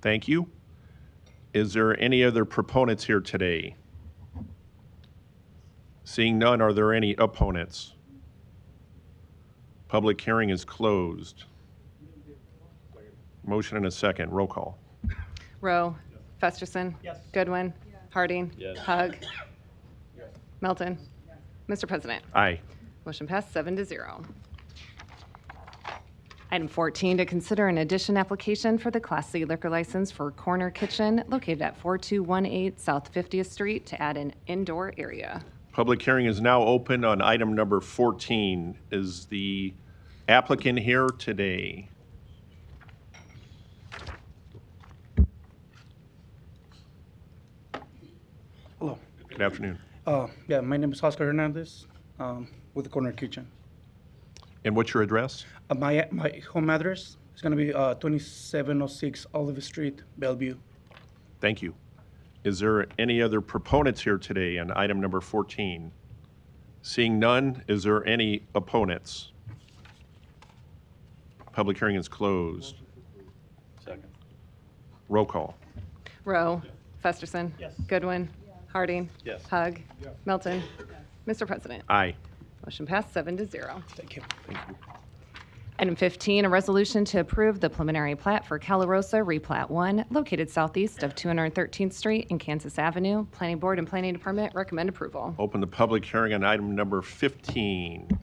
Thank you. Is there any other proponents here today? Seeing none, are there any opponents? Public hearing is closed. Motion and a second. Roll call. Rowe. Festerson. Goodwin. Harding. Hug. Melton. Mr. President, Aye. motion passed seven to zero. Item 14, to consider an addition application for the Class C liquor license for Corner Kitchen located at 4218 South 50th Street to add an indoor area. Public hearing is now open on item number 14. Is the applicant here today? Hello. Good afternoon. Uh, yeah, my name is Oscar Hernandez um, with Corner Kitchen. And what's your address? Uh, my my home address is gonna be uh, 2706 Olive Street, Bellevue. Thank you. Is there any other proponents here today on item number 14? Seeing none, is there any opponents? Public hearing is closed. Second. Roll call. Rowe. Festerson. Goodwin. Harding. Yes. Hug. Melton. Mr. President, Aye. motion passed seven to zero. Thank you. Item 15, a resolution to approve the preliminary plat for Calarosa Replat 1, located southeast of 213th Street and Kansas Avenue. Planning Board and Planning Department recommend approval. Open the public hearing on item number 15. Uh,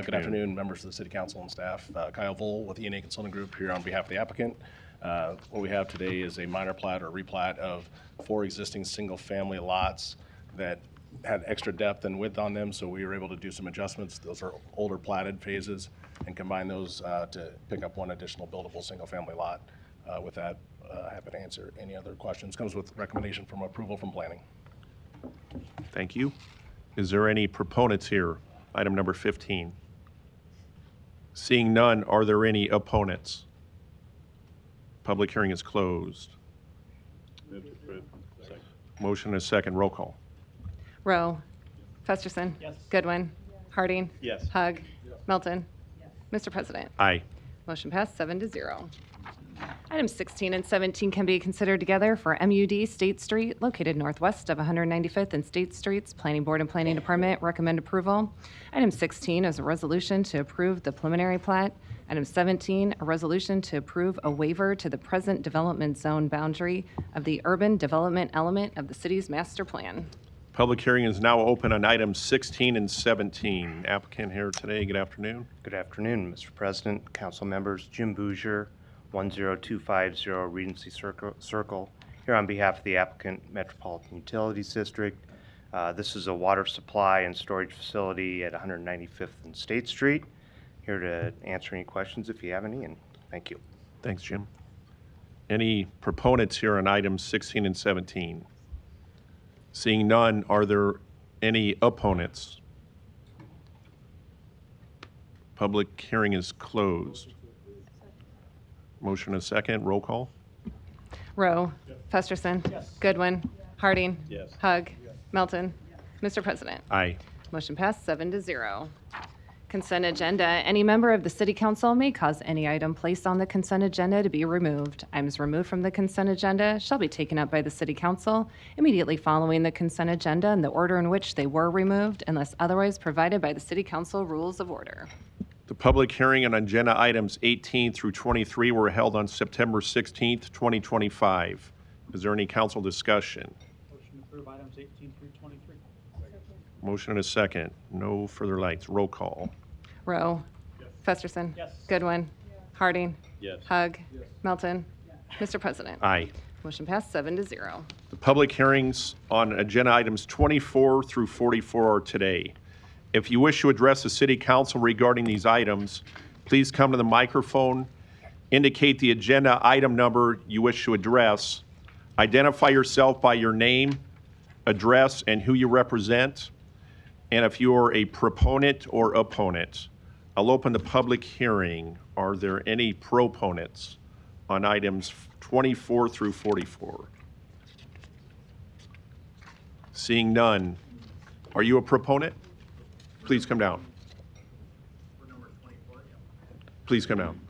Good afternoon, members of the city council and staff. Uh, Kyle Vohl with ENA Consulting Group here on behalf of the applicant. Uh, What we have today is a minor plat or replat of four existing single-family lots that had extra depth and width on them, so we were able to do some adjustments. Those are older platted phases and combine those uh, to pick up one additional buildable single-family lot. Uh, With that, uh, happy to answer any other questions. Comes with recommendation from approval from planning. Thank you. Is there any proponents here? Item number 15. Seeing none, are there any opponents? Public hearing is closed. Motion and a second. Roll call. Rowe. Festerson. Goodwin. Harding. Yes. Hug. Melton. Mr. President, Aye. motion passed seven to zero. Items 16 and 17 can be considered together for MUD State Street, located northwest of 195th and State Streets. Planning Board and Planning Department recommend approval. Item 16 is a resolution to approve the preliminary plat. Item 17, a resolution to approve a waiver to the present development zone boundary of the urban development element of the city's master plan. Public hearing is now open on items 16 and 17. Applicant here today, good afternoon. Good afternoon, Mr. President, council members. Jim Bouger, 10250 Regency Circle- Circle, here on behalf of the applicant Metropolitan Utilities District. Uh, This is a water supply and storage facility at 195th and State Street. Here to answer any questions if you have any, and thank you. Thanks, Jim. Any proponents here on items 16 and 17? Seeing none, are there any opponents? Public hearing is closed. Motion and a second, roll call. Rowe. Festerson. Goodwin. Harding. Hug. Melton. Mr. President. Aye. Motion passed seven to zero. Consent agenda. Any member of the city council may cause any item placed on the consent agenda to be removed. Items removed from the consent agenda shall be taken up by the city council immediately following the consent agenda in the order in which they were removed unless otherwise provided by the city council rules of order. The public hearing on agenda items 18 through 23 were held on September 16th, 2025. Is there any council discussion? Motion to approve items 18 through 23. Motion and a second, no further lights, roll call. Rowe. Festerson. Yes. Goodwin. Harding. Hug. Melton. Mr. President. Ah. Aye. Motion passed seven to zero. The public hearings on agenda items 24 through 44 are today. If you wish to address the city council regarding these items, please come to the microphone, indicate the agenda item number you wish to address, identify yourself by your name, address, and who you represent, and if you are a proponent or opponent. I'll open the public hearing. Are there any proponents on items 24 through 44? Seeing none, are you a proponent? Please come down. Please come down.